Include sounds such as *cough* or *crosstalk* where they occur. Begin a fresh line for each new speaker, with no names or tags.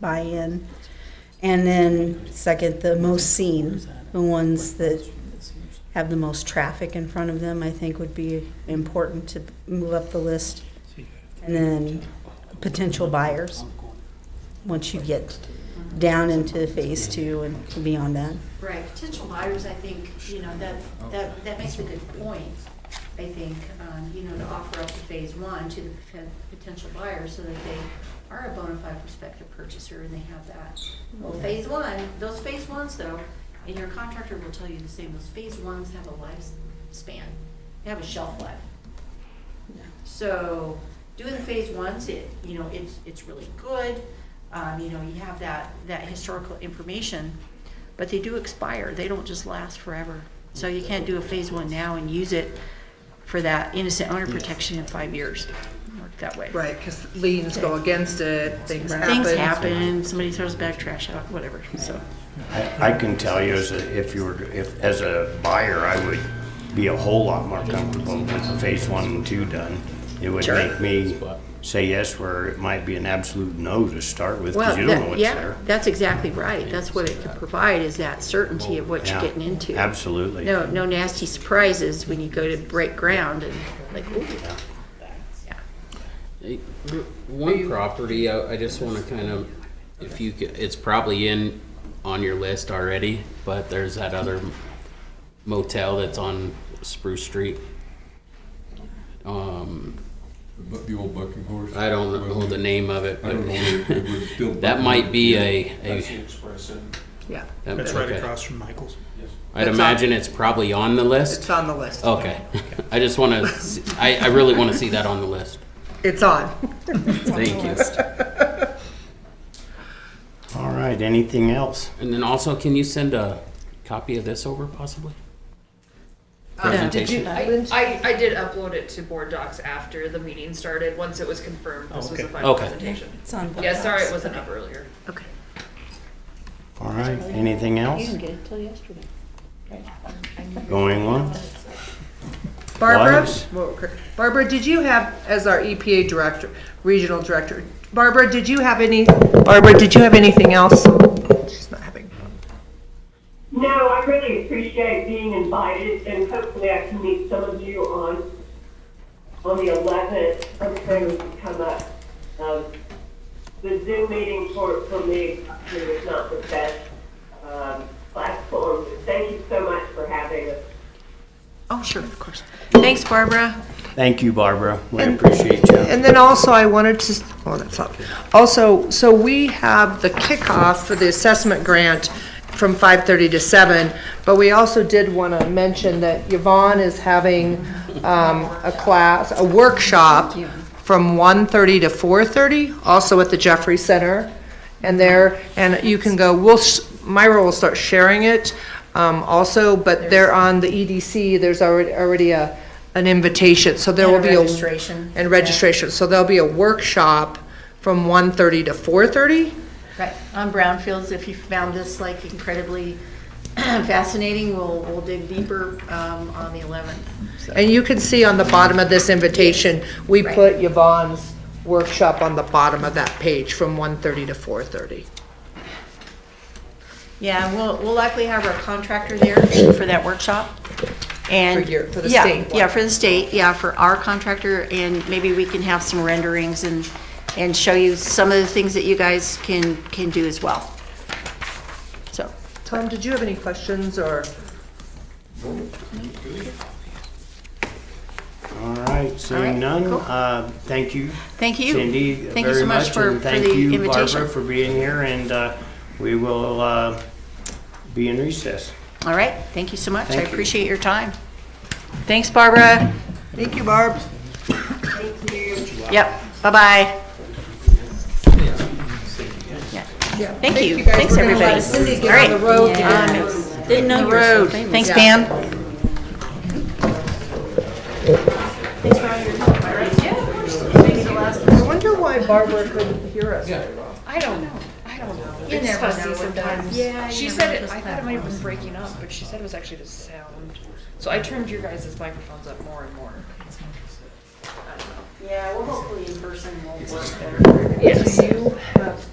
buy-in. And then second, the most seen, the ones that have the most traffic in front of them, I think would be important to move up the list. And then potential buyers, once you get down into phase two and beyond that.
Right, potential buyers, I think, you know, that, that, that makes a good point, I think, um, you know, to offer up the phase one to the poten- potential buyers so that they are a bona fide prospective purchaser and they have that. Well, phase one, those phase ones though, and your contractor will tell you the same, those phase ones have a lifespan, they have a shelf life. So doing the phase ones, it, you know, it's, it's really good. Um, you know, you have that, that historical information, but they do expire. They don't just last forever. So you can't do a phase one now and use it for that innocent owner protection in five years. Doesn't Work that way.
Right, because liens go against it, things happen.
Things happen, somebody throws bag trash out, whatever, so.
I I can tell you, as a, if you were, if, as a buyer, I would be a whole lot more comfortable with the phase one and two done. It would
Sure.
make me say yes where it might be an absolute no to start with, because you don't know
that-
what's
yeah,
there.
that's exactly right. That's what it can provide is that certainty of what you're
Yeah,
getting into.
Absolutely.
No, no nasty surprises when you go to break ground and like, ooh. Yeah.
Hey, w- One property, I, I just want to kind of, if you, ca- it's probably in, on your list already, but there's that other motel that's on Spruce Street. Um,
Bu- The old bucking horse?
I don't know the name of it,
I don't know. It-
but
it was
*laughs*
still
that might be a,
That's the
a.
express and
Yeah,
that-
That's right
okay.
across from Michael's.
I'd
That's on-
imagine it's probably on the
it's
list.
on the list.
Okay, *laughs* I just want to, I, I really want to see that on the list.
It's on.
Thank you.
All right, anything else?
And then also, can you send a copy of this over possibly?
Uh,
Did you,
Presentation.
I, I, I did upload it to board docs after the meeting started, once it was confirmed this was
okay.
a final
Okay.
presentation.
It's on both
Yeah, sorry
sides.
it wasn't up earlier.
Okay.
All right, anything else?
get it till yesterday.
Going on?
Barbara,
Lies.
Whoa, cr- Barbara, did you have, as our EPA director, regional director, Barbara, did you have any, Barbara, did you have anything else? She's not having.
No, I really appreciate being invited, and hopefully I can meet some of you on, on the 11th. Some things come up. Um, The Zoom meeting for, for me was not the best um, platform. Thank you so much for having us.
Oh, sure, of course. Thanks, Barbara.
Thank you, Barbara. We appreciate you.
And then also I wanted to, s- oh, that's up. Also, so we have the kickoff for the assessment grant from 5:30 to 7, but we also did want to mention that Yvonne is having um, a class, a workshop from 1:30 to 4:30, also at the Jeffrey Center. And there, and you can go, we'll, sh- Myra will start sharing it um, also, but they're on the EDC, there's already, already a, an invitation, so there
And
will
a
be a.
registration.
And registration, so there'll be a workshop from 1:30 to 4:30?
Right, on brownfields, if you found this like incredibly *clears throat* fascinating, we'll, we'll dig deeper um, on the 11th. So,
And you can see on the bottom of this invitation, we put Yvonne's workshop on the bottom of that page from 1:30 to 4:30.
Yeah, and we'll, we'll likely have our contractor there for that workshop. And.
For your- for the
Yeah,
state one.
Yeah, for the state, yeah, for our contractor, and maybe we can have some renderings and, and show you some of the things that you guys can, can do as well. So.
Tom, did you have any questions or?
All right,
All right,
seeing none,
cool.
uh, thank you.
Thank you.
Cindy,
Thank you so
very
much
much,
for-
and
for
thank
the
you,
invitation.
Barbara, for being here, and uh, we will uh, be in recess.
All right, thank you so much. I
Thank you.
appreciate your time. Thanks, Barbara.
Thank you, Barb.
Yep, bye-bye. Yeah. Thank you.
guys.
Thanks,
We're gonna let
everybody.
Cindy get
All right.
on the road.
Um, Didn't know the road. Thanks, Dan.
I wonder why Barbara couldn't hear us.
I don't know, I don't know. You never know sometimes. Yeah. She said it, I thought it might have been breaking up, but she said it was actually the sound. So I turned your guys' microphones up more and more.
Yeah, well, hopefully in person will work better.
Yes.